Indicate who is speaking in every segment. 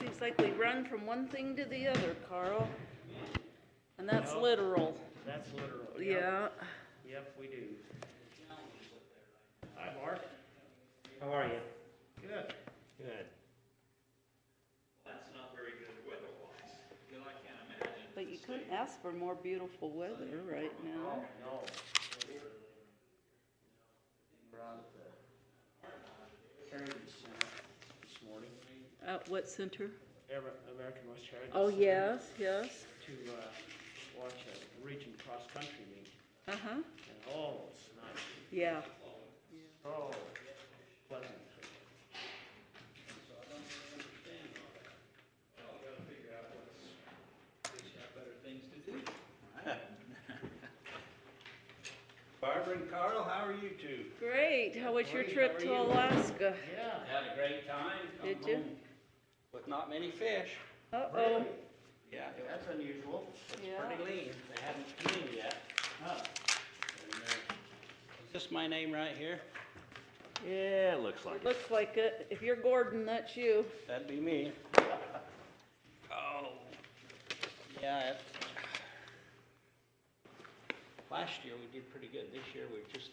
Speaker 1: It's like we run from one thing to the other, Carl. And that's
Speaker 2: No.
Speaker 1: literal,
Speaker 2: That's literal. Yep.
Speaker 1: yeah.
Speaker 2: Yep, we do. Hi, Mark. How are you?
Speaker 3: Good.
Speaker 2: Good.
Speaker 1: But you couldn't ask for more beautiful weather right now.
Speaker 2: No. We're out at the Heritage Center this morning,
Speaker 1: At what center?
Speaker 2: Ever- American West Heritage.
Speaker 1: Oh,
Speaker 2: Center,
Speaker 1: yes, yes,
Speaker 2: To, uh, watch a region cross-country meet,
Speaker 1: uh-huh,
Speaker 2: and oh, it's nice,
Speaker 1: yeah.
Speaker 2: oh, pleasant.
Speaker 3: Barbara and Carl, how are you two?
Speaker 1: Great, how was your
Speaker 3: Great, how
Speaker 1: trip
Speaker 3: are
Speaker 1: to
Speaker 3: you?
Speaker 1: Alaska?
Speaker 2: Yeah.
Speaker 3: Had a great time. come
Speaker 1: Did you?
Speaker 3: home With not many fish.
Speaker 1: Uh-oh,
Speaker 3: Yeah, that's unusual. It's
Speaker 1: Yeah.
Speaker 3: pretty lean. They haven't cleaned yet.
Speaker 2: Huh.
Speaker 3: And, uh, Is this my name right here?
Speaker 4: Yeah, it looks like it.
Speaker 1: looks like it, if you're Gordon, that's you.
Speaker 3: That'd be me. Oh. Yeah, it. Last year we did pretty good. This year we're just,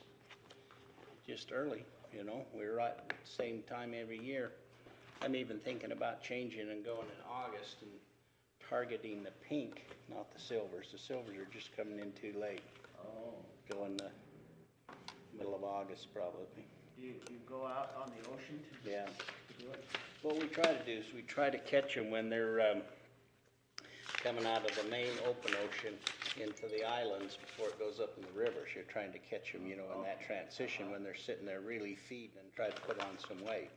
Speaker 3: just early, you know? We're right at the same time every year. I'm even thinking about changing and going in August and targeting the pink, not the silvers. The silvers are just coming in too late.
Speaker 2: Oh,
Speaker 3: Go in the middle of August probably,
Speaker 2: you, you go out on the ocean to
Speaker 3: yeah.
Speaker 2: to do it?
Speaker 3: What we try to do is we try to catch them when they're, um, coming out of the main open ocean into the islands before it goes up in the rivers. You're trying to catch them, you know, in that transition when they're sitting there really feeding and try to put on some weight.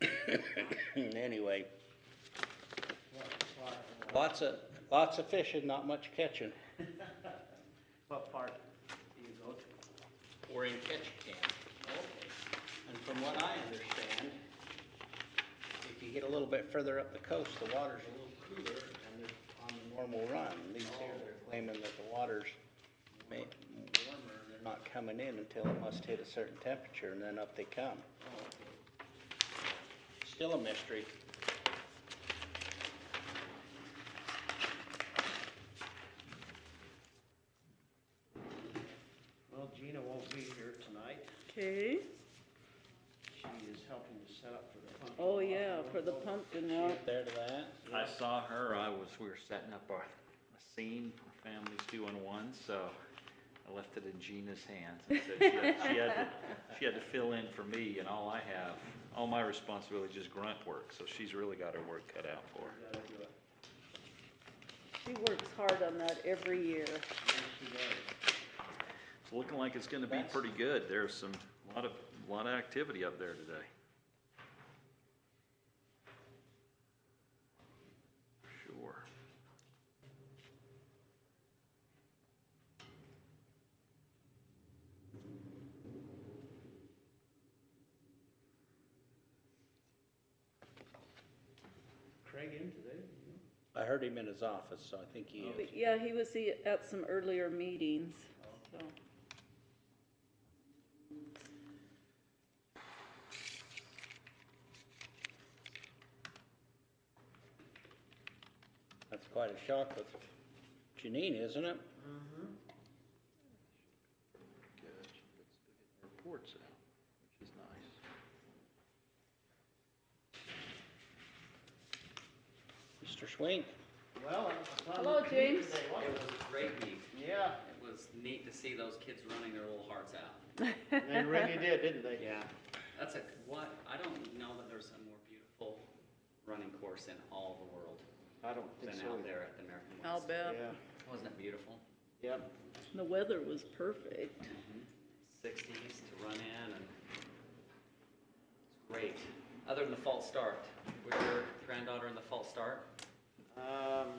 Speaker 2: Okay, so,
Speaker 3: Anyway,
Speaker 2: what, what, what-
Speaker 3: lots of, lots of fishing, not much catching.
Speaker 2: what part do you go to?
Speaker 3: We're in catch camp. And from what I understand, if you get a little bit further up the coast, the water's a little cooler and they're on the normal run. These here, they're claiming that the water's ma- warmer and they're not coming in until it must hit a certain temperature and then up they come. Still a mystery.
Speaker 2: Well, Gina won't be here tonight.
Speaker 1: Okay,
Speaker 2: She is helping to set up for the pumpkin.
Speaker 1: oh
Speaker 2: walk.
Speaker 1: yeah, for the
Speaker 2: Oh,
Speaker 1: pumpkin
Speaker 3: You
Speaker 1: walk,
Speaker 3: up there to that?
Speaker 4: I saw her, I was, we were setting up our a scene for families doing one, so I left it in Gina's hands. and said She had she had to she had to fill in for me, and all I have, all my responsibility is just grunt work, so she's really got her work cut out for her.
Speaker 2: you gotta do it.
Speaker 1: she works hard on that every year.
Speaker 2: Yes, she does.
Speaker 4: It's looking like it's gonna be pretty good. There's some, lot of, lot of activity up there today. Sure.
Speaker 2: Craig in today? you
Speaker 3: I heard him in his office, so I think he is.
Speaker 1: But yeah, he was e- at some earlier meetings, so.
Speaker 3: That's quite a shock with Janine, isn't it?
Speaker 2: know? Mm-hmm.
Speaker 4: Reports out, which is nice.
Speaker 3: Mr. Swink?
Speaker 2: Well, it's fun.
Speaker 1: Hello, James.
Speaker 2: Today,
Speaker 5: It
Speaker 2: wasn't
Speaker 5: was a great week.
Speaker 2: it? Yeah,
Speaker 5: It was neat to see those kids running their little hearts out.
Speaker 2: they really did, didn't they?
Speaker 5: Yeah. That's a, what, I don't know that there's a more beautiful running course in all the world
Speaker 2: I don't
Speaker 5: than
Speaker 2: think so.
Speaker 5: out
Speaker 2: either.
Speaker 5: there at the American
Speaker 1: I'll
Speaker 5: West.
Speaker 1: bet.
Speaker 2: Yeah,
Speaker 5: Wasn't it beautiful?
Speaker 2: yep.
Speaker 1: The weather was perfect.
Speaker 5: Sixties to run in and it's great. Other than the false start, was your granddaughter in the false start?
Speaker 2: Um,